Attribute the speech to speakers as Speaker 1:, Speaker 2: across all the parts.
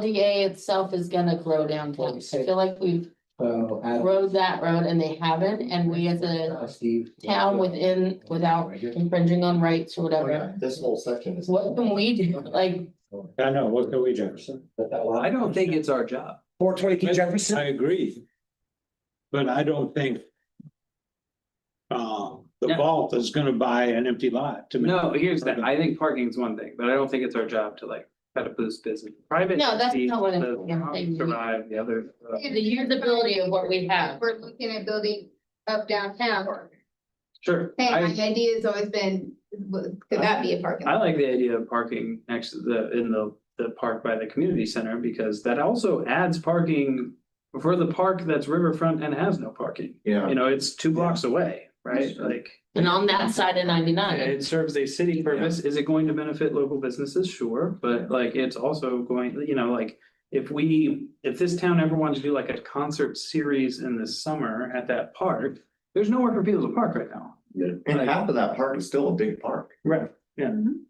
Speaker 1: LDA itself is gonna grow down things. I feel like we've
Speaker 2: So, Adam,
Speaker 1: rode that road and they haven't, and we as a
Speaker 2: uh, Steve.
Speaker 1: town within, without infringing on rights or whatever.
Speaker 3: Oh, This whole section is.
Speaker 1: What can we do? Like,
Speaker 4: I know, what can we do?
Speaker 5: I don't think it's our job.
Speaker 2: Four twenty-two Jefferson.
Speaker 4: I agree. But I don't think. Um, the
Speaker 5: No.
Speaker 4: vault is gonna buy an empty lot to me.
Speaker 5: No, here's that, I think parking is one thing, but I don't think it's our job to like, kind of boost business, private.
Speaker 1: No, that's
Speaker 5: entity
Speaker 1: not what I'm-
Speaker 5: doesn't
Speaker 1: yeah, I agree.
Speaker 5: Survive the other. uh,
Speaker 1: the usability of what we have.
Speaker 6: We're looking at building up downtown.
Speaker 5: Sure,
Speaker 6: Hey, my
Speaker 5: I,
Speaker 6: idea has always been, w- could that be a parking?
Speaker 5: I
Speaker 6: lot?
Speaker 5: like the idea of parking next to the, in the, the park by the community center, because that also adds parking. For the park that's riverfront and has no parking,
Speaker 3: Yeah.
Speaker 5: you know, it's two blocks away, right, like.
Speaker 1: And on that side of ninety-nine,
Speaker 5: It serves a city purpose. Is it going to benefit local businesses? Sure, but like it's also going, you know, like. If we, if this town ever wanted to do like a concert series in the summer at that park, there's nowhere for people to park right now.
Speaker 3: And half of that park is still a big park.
Speaker 5: Right.
Speaker 6: And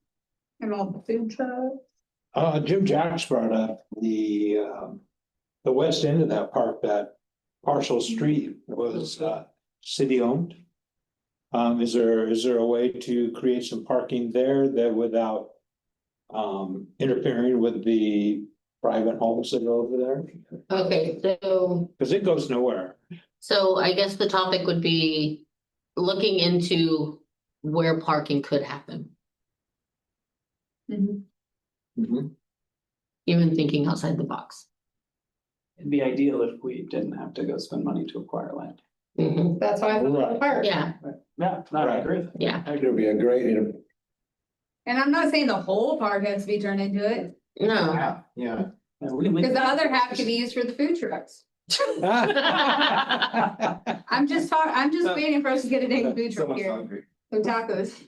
Speaker 6: all the food trucks.
Speaker 4: Uh, Jim Jacks brought up the, um, the west end of that park, that partial street was, uh, city owned. Um, is there, is there a way to create some parking there that without, um, interfering with the private homes that are over there?
Speaker 1: okay, so,
Speaker 4: Cause it goes nowhere.
Speaker 1: so I guess the topic would be looking into where parking could happen, Mm-hmm. even thinking outside the box.
Speaker 5: It'd be ideal if we didn't have to go spend money to acquire land.
Speaker 1: Mhm.
Speaker 6: That's why I thought
Speaker 4: Right.
Speaker 6: the park.
Speaker 1: Yeah,
Speaker 5: Yeah,
Speaker 4: I
Speaker 5: I agree.
Speaker 1: yeah.
Speaker 2: It'll be a great.
Speaker 6: And I'm not saying the whole park has to be turned into it,
Speaker 1: No,
Speaker 3: Yeah.
Speaker 6: because the other half could be used for the food trucks. I'm just talking, I'm just waiting for us to get a
Speaker 4: uh,
Speaker 6: dang food truck here, some tacos.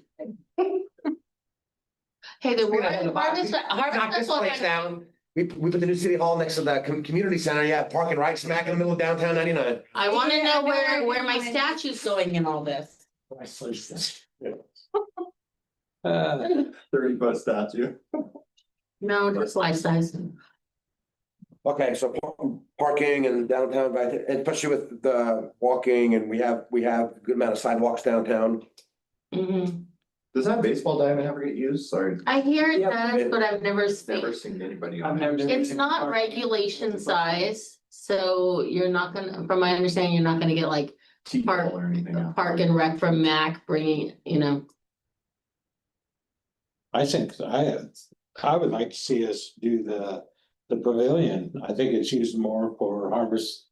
Speaker 1: hey, the
Speaker 2: Straight out of the box.
Speaker 1: harvest,
Speaker 2: Knock
Speaker 1: harvest
Speaker 2: this
Speaker 1: festival
Speaker 2: place
Speaker 1: had
Speaker 2: down. We, we put the new city hall next to the com- community center, yeah, parking right smack in the middle of downtown ninety-nine.
Speaker 1: I wanna
Speaker 6: Yeah,
Speaker 1: know
Speaker 6: I know, I
Speaker 1: where,
Speaker 6: know,
Speaker 1: where my
Speaker 6: I know.
Speaker 1: statue's going in all this.
Speaker 4: Uh,
Speaker 3: Thirty foot statue.
Speaker 1: No, just life size.
Speaker 2: Okay, so par- parking and downtown, but I thi- especially with the walking and we have, we have a good amount of sidewalks downtown.
Speaker 1: Mhm.
Speaker 3: Does that baseball diamond ever get used? Sorry,
Speaker 1: I hear it
Speaker 5: Yep.
Speaker 1: does, but I've never
Speaker 3: never
Speaker 1: seen.
Speaker 3: seen anybody
Speaker 5: I've
Speaker 3: on
Speaker 5: never.
Speaker 3: it.
Speaker 1: It's not regulation size, so you're not gonna, from my understanding, you're not gonna get like
Speaker 3: T-ball or anything.
Speaker 1: a park and rec from Mac bringing, you know.
Speaker 4: I think, I, I would like to see us do the, the pavilion, I think it's used more for harvest.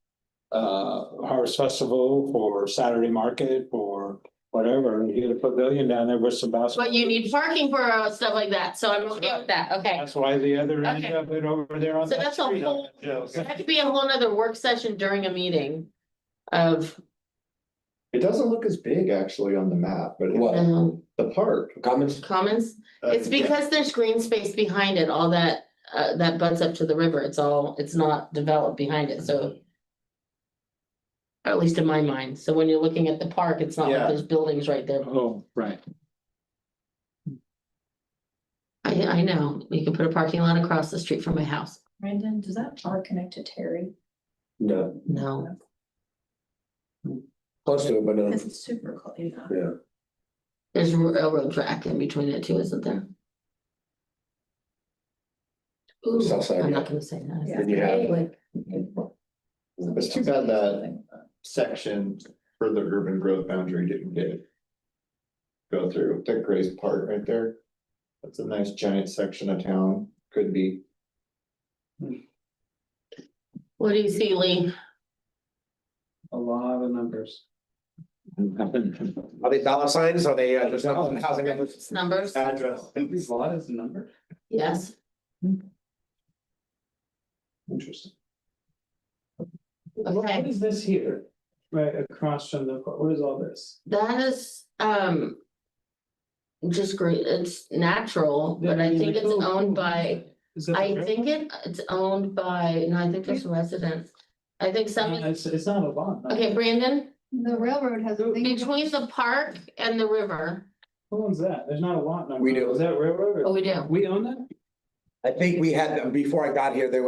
Speaker 4: Uh, harvest festival, for Saturday market, for whatever, you get a pavilion down there with some
Speaker 1: But
Speaker 4: basketball.
Speaker 1: you need parking for uh, stuff like that, so I'm okay with that, okay.
Speaker 4: That's why the other end
Speaker 1: Okay.
Speaker 4: of it over there on.
Speaker 1: So
Speaker 4: that
Speaker 1: that's a
Speaker 4: street.
Speaker 1: whole-
Speaker 4: Yeah,
Speaker 1: So That could be a whole nother work session during a meeting of,
Speaker 3: It doesn't look as big actually on the map, but
Speaker 2: What?
Speaker 3: it-
Speaker 1: um,
Speaker 3: the park.
Speaker 2: Comments?
Speaker 1: comments.
Speaker 3: uh,
Speaker 1: It's because there's green space behind it, all that, uh, that butts up to the river, it's all, it's not developed behind it, so. or At least in my mind, so when you're looking at the park, it's not like
Speaker 3: Yeah.
Speaker 1: there's buildings right there.
Speaker 4: Oh, right,
Speaker 1: I, I know, you can put a parking lot across the street from my house,
Speaker 7: Brandon, does that park connect to Terry?
Speaker 2: No,
Speaker 1: no,
Speaker 2: close to it, but uh, no.
Speaker 7: This is super close, you know.
Speaker 1: there's a railroad track in between it too, isn't there? Ooh,
Speaker 2: South side,
Speaker 1: I'm
Speaker 2: yeah.
Speaker 1: not gonna say that.
Speaker 2: Then you have,
Speaker 1: Anyway,
Speaker 3: It's too bad that section for the urban growth boundary didn't get. Go through that Gray's Park right there. That's a nice giant section of town, could be.
Speaker 1: What do you see, Lee?
Speaker 5: A lot of numbers.
Speaker 2: are they dollar signs? Are they, uh, just housing?
Speaker 1: It's Numbers,
Speaker 3: Address.
Speaker 5: A lot is a number.
Speaker 1: yes.
Speaker 5: Interesting.
Speaker 1: Okay.
Speaker 5: What is this here? Right across from the, what is all this?
Speaker 1: That is, um. Just great, it's natural, but I think it's owned by,
Speaker 5: Is that
Speaker 1: I
Speaker 5: the-
Speaker 1: think it, it's owned by, no, I think there's residents. I think
Speaker 5: Uh,
Speaker 1: some,
Speaker 5: It's, it's not a lot. no.
Speaker 1: okay, Brandon,
Speaker 6: The railroad has a thing.
Speaker 1: between the park and the river,
Speaker 5: Who owns that? There's not a lot number.
Speaker 2: We do.
Speaker 5: Is that railroad?
Speaker 1: oh,
Speaker 5: or-
Speaker 1: we do,
Speaker 5: We own that?
Speaker 2: I think we had, before I got here, there was.